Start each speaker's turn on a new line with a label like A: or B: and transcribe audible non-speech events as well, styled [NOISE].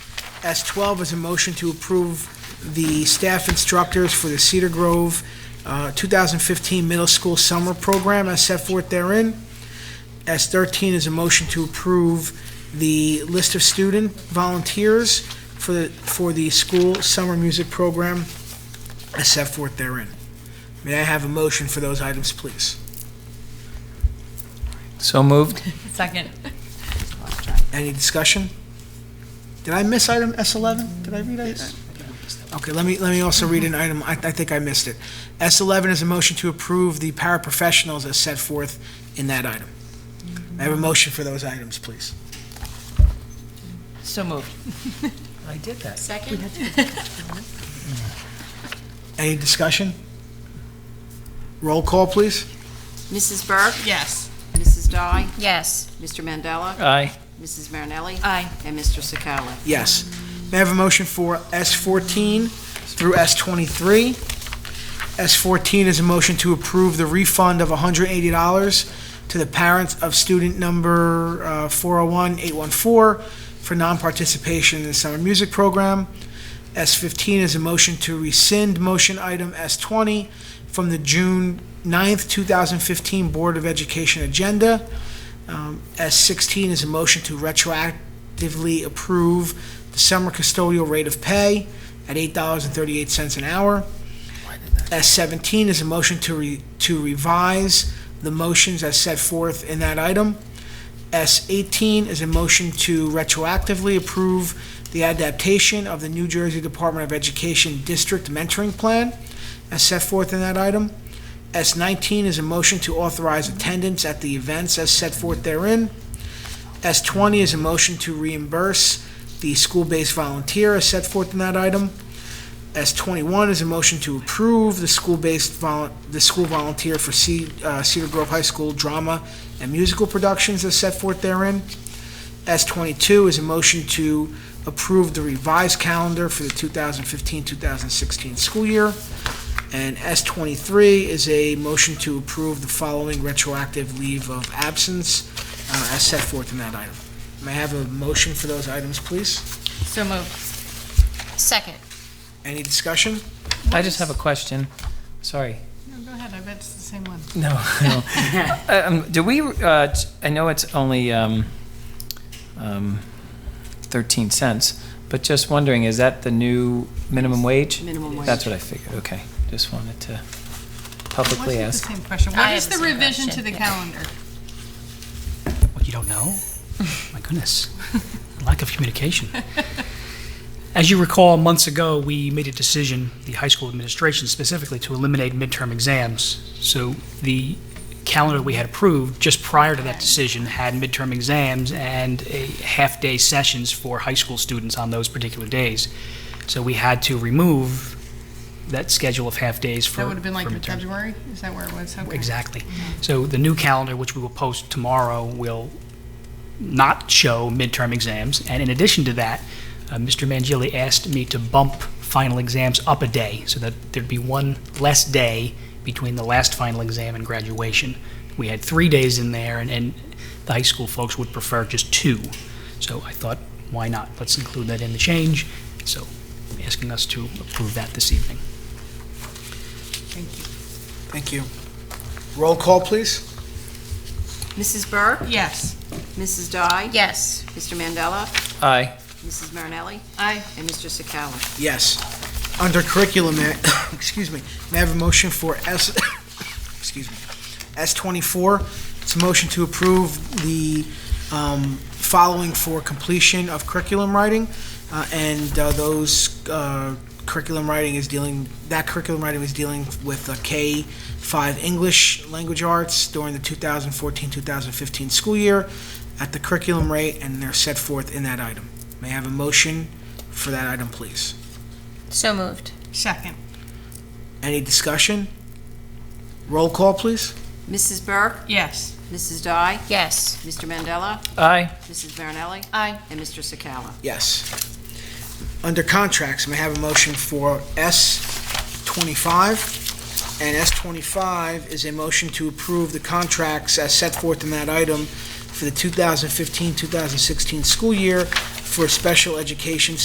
A: S12 is a motion to approve the staff instructors for the Cedar Grove uh, 2015 Middle School Summer Program as set forth therein. S13 is a motion to approve the list of student volunteers for the, for the school summer music program as set forth therein. May I have a motion for those items, please?
B: So moved.
C: Second.
A: Any discussion? Did I miss item S11? Did I read it? Okay, let me, let me also read an item, I, I think I missed it. S11 is a motion to approve the paraprofessionals as set forth in that item. May I have a motion for those items, please?
C: So moved.
B: I did that.
D: Second?
A: Any discussion? Roll call, please.
D: Mrs. Burke?
C: Yes.
D: Mrs. Dye?
C: Yes.
D: Mr. Mandela?
B: Aye.
D: Mrs. Marinelli?
C: Aye.
D: And Mr. Sakala?
A: Yes. May I have a motion for S14 through S23? S14 is a motion to approve the refund of $180 to the parents of student number uh, 401-814 for non-participation in the summer music program. S15 is a motion to rescind motion item S20 from the June 9th, 2015 Board of Education agenda. Um, S16 is a motion to retroactively approve the summer custodial rate of pay at $8.38 an hour. S17 is a motion to re, to revise the motions as set forth in that item. S18 is a motion to retroactively approve the adaptation of the New Jersey Department of Education District Mentoring Plan as set forth in that item. S19 is a motion to authorize attendance at the events as set forth therein. S20 is a motion to reimburse the school-based volunteer as set forth in that item. S21 is a motion to approve the school-based, vol- the school volunteer for Ce- uh, Cedar Grove High School drama and musical productions as set forth therein. S22 is a motion to approve the revised calendar for the 2015-2016 school year. And S23 is a motion to approve the following retroactive leave of absence uh, as set forth in that item. May I have a motion for those items, please?
C: So moved.
E: Second.
A: Any discussion?
B: I just have a question. Sorry.
C: No, go ahead, I bet it's the same one.
B: No. no. [LAUGHS] Um, Do we, uh, t- I know it's only um, um, 13 cents, but just wondering, is that the new minimum wage?
D: Minimum wage.
B: That's what I figured, okay. Just wanted to publicly ask.
C: Same question.
E: I
C: What
E: have
C: is
E: the
C: the
E: same
C: revision to
E: question,
C: the
E: yeah.
C: calendar?
F: What, you don't know? My goodness. Lack of communication. As you recall, months ago, we made a decision, the high school administration specifically, to eliminate midterm exams. So the calendar we had approved just prior to that decision had midterm exams and a half-day sessions for high school students on those particular days. So we had to remove that schedule of half-days for
C: That would have been like
F: for
C: in
F: midterm.
C: February? Is that where it was? Okay.
F: Exactly. So the new calendar, which we will post tomorrow, will not show midterm exams. And in addition to that, uh, Mr. Mangili asked me to bump final exams up a day so that there'd be one less day between the last final exam and graduation. We had three days in there, and, and the high school folks would prefer just two. So I thought, why not? Let's include that in the change. So asking us to approve that this evening.
A: Thank you. Roll call, please.
D: Mrs. Burke?
C: Yes.
D: Mrs. Dye?
E: Yes.
D: Mr. Mandela?
B: Aye.
D: Mrs. Marinelli?
C: Aye.
D: And Mr. Sakala?
A: Yes. Under curriculum, may- [COUGHS] excuse me, may I have a motion for S, [COUGHS] excuse me, S24? It's a motion to approve the um, following for completion of curriculum writing, uh, and uh, those uh, curriculum writing is dealing, that curriculum writing is dealing with uh, K-5 English Language Arts during the 2014-2015 school year at the curriculum rate, and they're set forth in that item. May I have a motion for that item, please?
E: So moved.
C: Second.
A: Any discussion? Roll call, please.
D: Mrs. Burke?
C: Yes.
D: Mrs. Dye?
E: Yes.
D: Mr. Mandela?
B: Aye.
D: Mrs. Marinelli?
C: Aye.
D: And Mr. Sakala?
A: Yes. Under contracts, may I have a motion for S25? And S25 is a motion to approve the contracts as set forth in that item for the 2015-2016 school year for special education